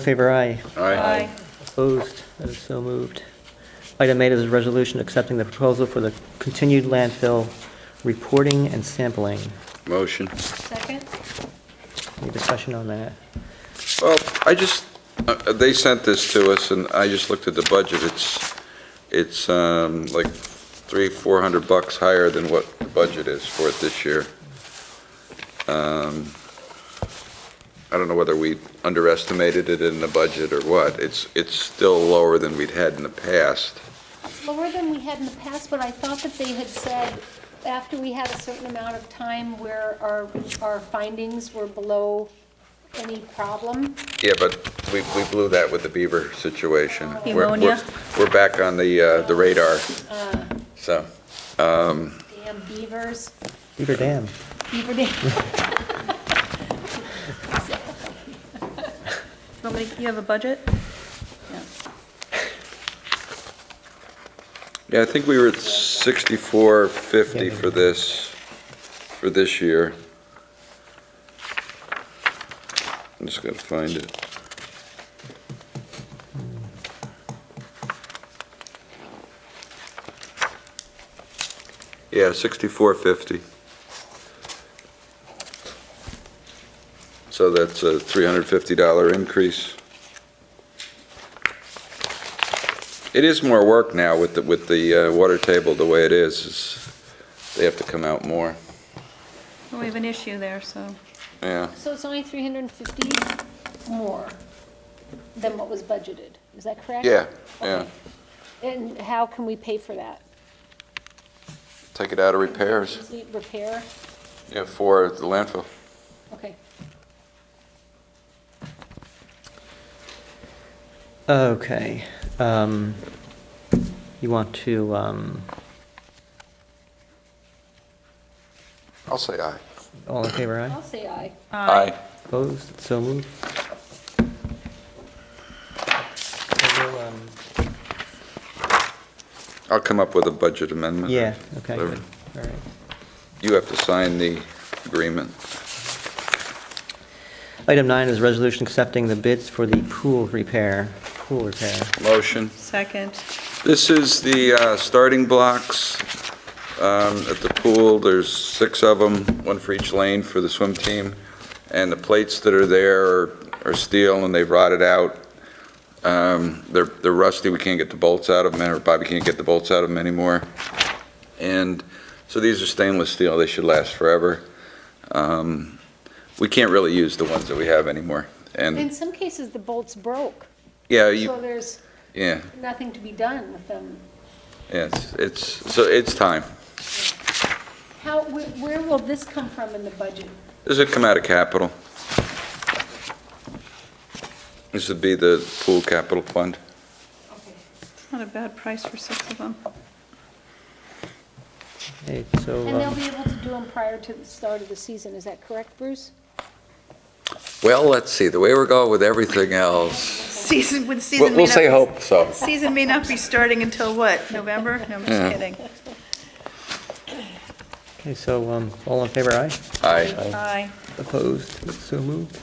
Favor aye. Aye. Opposed? That is so moved. Item eight is a resolution accepting the proposal for the continued landfill reporting and sampling. Motion. Second? Any discussion on that? Well, I just, uh, uh, they sent this to us, and I just looked at the budget. It's, it's um, like three, 400 bucks higher than what the budget is for it this year. Um, I don't know whether we underestimated it in the budget or what. It's, it's still lower than we'd had in the past. It's lower than we had in the past, but I thought that they had said, after we had a certain amount of time where our, our findings were below any problem. Yeah, but we, we blew that with the beaver situation. We're- we're- Pneumonia? We're back on the, uh, the radar, so. Damn beavers, Beaver Dam. beaver dam. Want me to- you have a budget? Yeah, I think we were at sixty-four fifty for this, for this year. I'm just gonna find it. Yeah, sixty-four fifty. So that's a three hundred fifty dollar increase. It is more work now with the, with the uh, water table the way it is, is they have to come out more. Well, we have an issue there, so. Yeah, So it's only 350 more than what was budgeted, is that correct? yeah, yeah. And how can we pay for that? Take it out of repairs, Complete Repair? yeah, for the landfill. Okay. Okay. um, You want to, um, I'll say aye. all in favor aye? I'll say aye. Aye. Opposed? It's So moved. So we'll, um, I'll come up with a budget amendment. Yeah, okay, good. Whatever. All right. You have to sign the agreement. Item nine is a resolution accepting the bids for the pool repair, pool repair. Motion. Second. This is the uh, starting blocks um, at the pool. There's six of them, one for each lane for the swim team. And the plates that are there are- are steel and they've rotted out. Um, They're they're rusty, we can't get the bolts out of them, or Bobby can't get the bolts out of them anymore. And so these are stainless steel, they should last forever. Um, We can't really use the ones that we have anymore. In And, some cases, the bolts broke, Mm. yeah, you, so there's yeah, nothing to be done with them. yeah, it's- it's, so it's time. How, where, where will this come from in the budget? Does it come out of capital? This would be the pool capital fund. It's Not a bad price for six of them. Okay, so. And they'll um, be able to do them prior to the start of the season, is that correct, Bruce? Well, let's see, the way we're going with everything else. Season, would season We'll may not. we'll say hope, so. Season may not be starting until what, November? No, I'm Yeah. just kidding. Okay, so, um, all in favor, aye? Aye. Aye. Opposed? It's So moved.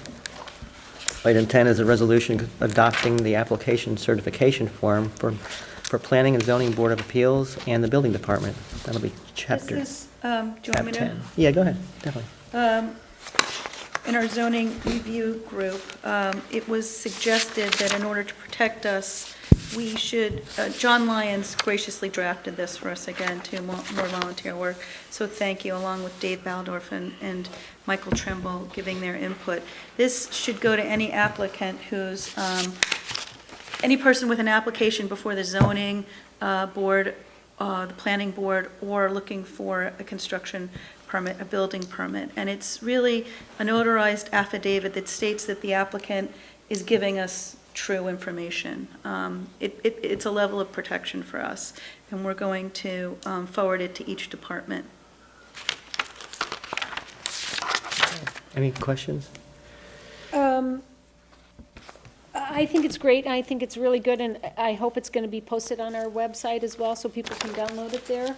Item 10 is a resolution adopting the application certification form for, for Planning and Zoning Board of Appeals and the Building Department. That'll be This chapter, is, um, do you want chapter me to? 10. Yeah, go ahead, definitely. Um, In our zoning review group, um, it was suggested that in order to protect us, we should, uh, John Lyons graciously drafted this for us again to mo- more volunteer work, so thank you, along with Dave Baldorf and- and Michael Trimble giving their input. This should go to any applicant who's um, any person with an application before the zoning uh, board, uh, the planning board, or looking for a construction permit, a building permit. And it's really a notarized affidavit that states that the applicant is giving us true information. Um, It, it- it's a level of protection for us, and we're going to um, forward it to each department. Any questions? Um, I I think it's great, and I think it's really good, and I- I hope it's gonna be posted on our website as well, so people can download it there.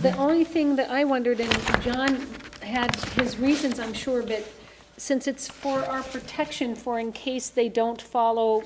The only thing that I wondered, and John had his reasons, I'm sure, but since it's for our protection, for in case they don't follow